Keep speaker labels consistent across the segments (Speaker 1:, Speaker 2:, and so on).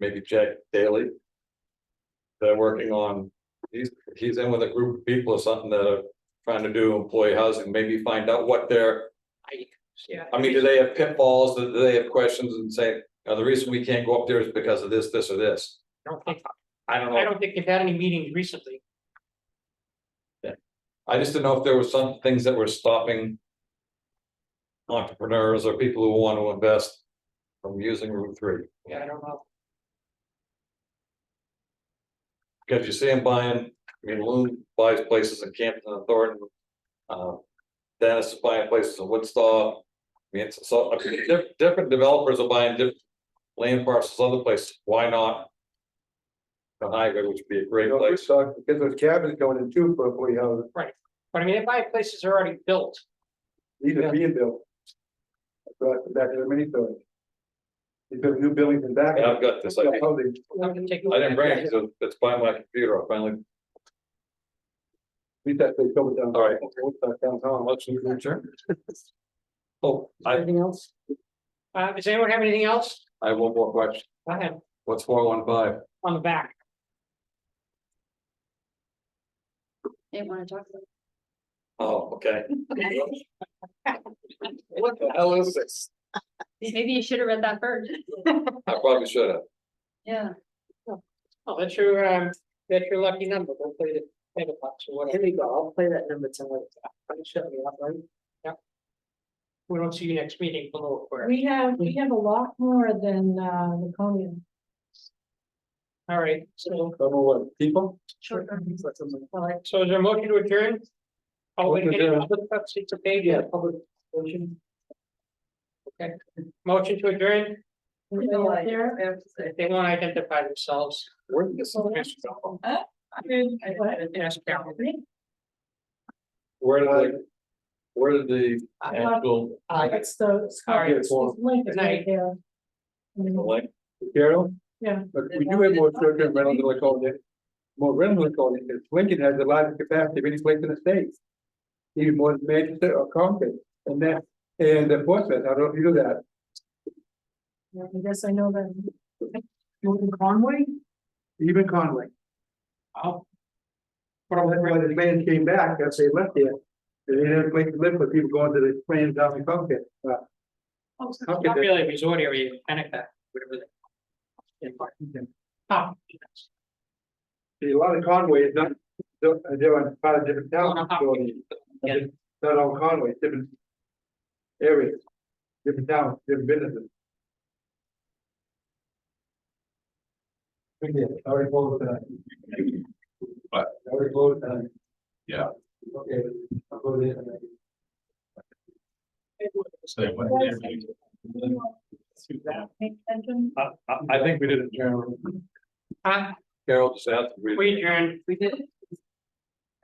Speaker 1: maybe Jack Daly. They're working on, he's, he's in with a group of people or something that are trying to do employee housing, maybe find out what their
Speaker 2: Yeah.
Speaker 1: I mean, do they have pitfalls? Do do they have questions and say, "Now, the reason we can't go up there is because of this, this or this?
Speaker 2: I don't think,
Speaker 1: I don't
Speaker 2: I
Speaker 1: know.
Speaker 2: don't think they've had any meetings recently.
Speaker 1: I just didn't know if there were some things that were stopping. Entrepreneurs or people who want to invest from using Route three.
Speaker 2: Yeah, I don't know.
Speaker 1: Because you see them buying, I mean, Loon buys places in Campton and Thornton. Uh, Dennis is buying places in Woodstock. I mean, it's- so, I mean, diff- different developers are buying different land parcels other places. Why not? The highway, which would be a great
Speaker 3: You know,
Speaker 1: place.
Speaker 3: Woodstock, Because those cabins going in too, for employee housing,
Speaker 2: But I mean, they buy places that are already built.
Speaker 3: these
Speaker 2: Yeah.
Speaker 3: are being built. I brought them back to the mini story. They built new buildings in back.
Speaker 1: Yeah, I've got this, I think.
Speaker 3: Housing.
Speaker 2: I didn't
Speaker 1: I didn't bring it, so it's by my computer, I finally,
Speaker 3: We thought they covered down.
Speaker 1: All right.
Speaker 3: Woodstock downtown.
Speaker 1: let's adjourn. Oh, I,
Speaker 2: Anything else? Uh, does anyone have anything else?
Speaker 1: I have one more question,
Speaker 2: Go ahead,
Speaker 1: what's four one five?
Speaker 2: on the back.
Speaker 4: They wanna talk about.
Speaker 1: Oh, okay.
Speaker 2: What
Speaker 1: the hell is this?
Speaker 4: Maybe you should have read that first.
Speaker 1: I probably should have,
Speaker 4: Yeah.
Speaker 2: Oh, that's your, um, that's your lucky number. Don't play the paper box or whatever. Here we go. I'll play that number tomorrow. Shut me up, right? Yeah. We don't see you next meeting below. where-
Speaker 5: We have, we have a lot more than uh Laconia.
Speaker 2: All right, so,
Speaker 3: Some of what, people?
Speaker 4: Sure.
Speaker 2: all right, so is there a motion to adjourn? Oh, wait,
Speaker 3: Motion to adjourn.
Speaker 2: let's see, it's a page, yeah, public motion. Okay, motion to adjourn.
Speaker 5: Everybody out there?
Speaker 2: If they want to identify themselves.
Speaker 1: where did this information come from?
Speaker 2: Ask Carol.
Speaker 1: Where did, the- where did the actual,
Speaker 2: Aye.
Speaker 5: It's the. it's
Speaker 2: All right.
Speaker 5: it's the link is right there.
Speaker 1: the
Speaker 5: And
Speaker 1: link?
Speaker 3: Carol?
Speaker 5: Yeah.
Speaker 3: But we do have more short-term rentals than we call it. More rentals than we call it, because Lincoln has the largest capacity of any place in the state. Even more than Manchester or Concord, and that, and the Portsmouth, I don't know if you know that.
Speaker 5: I guess I know that. Jordan Conway?
Speaker 3: Even Conway.
Speaker 2: Oh.
Speaker 3: But when the man came back, that's they left there. They didn't have a place to live, but people going to the plane down in Concord. Uh,
Speaker 2: It's Not really a resort area, kind of, whatever. that- Oh, yes.
Speaker 3: see, A lot of Conway is not, they're they're on part of different
Speaker 2: Oh, no,
Speaker 3: towns.
Speaker 2: how-
Speaker 3: so it's
Speaker 2: Yeah.
Speaker 3: Not all Conway, it's different areas, different towns, different businesses. Okay, I already voted tonight.
Speaker 1: What?
Speaker 3: I already voted tonight.
Speaker 1: Yeah.
Speaker 3: Okay, I'll go there tonight.
Speaker 1: Say what?
Speaker 5: Extension?
Speaker 1: I, I, I think we did it, Carol.
Speaker 2: Ah,
Speaker 1: Carol just asked. if we-
Speaker 2: we adjourned.
Speaker 4: We did.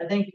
Speaker 4: I think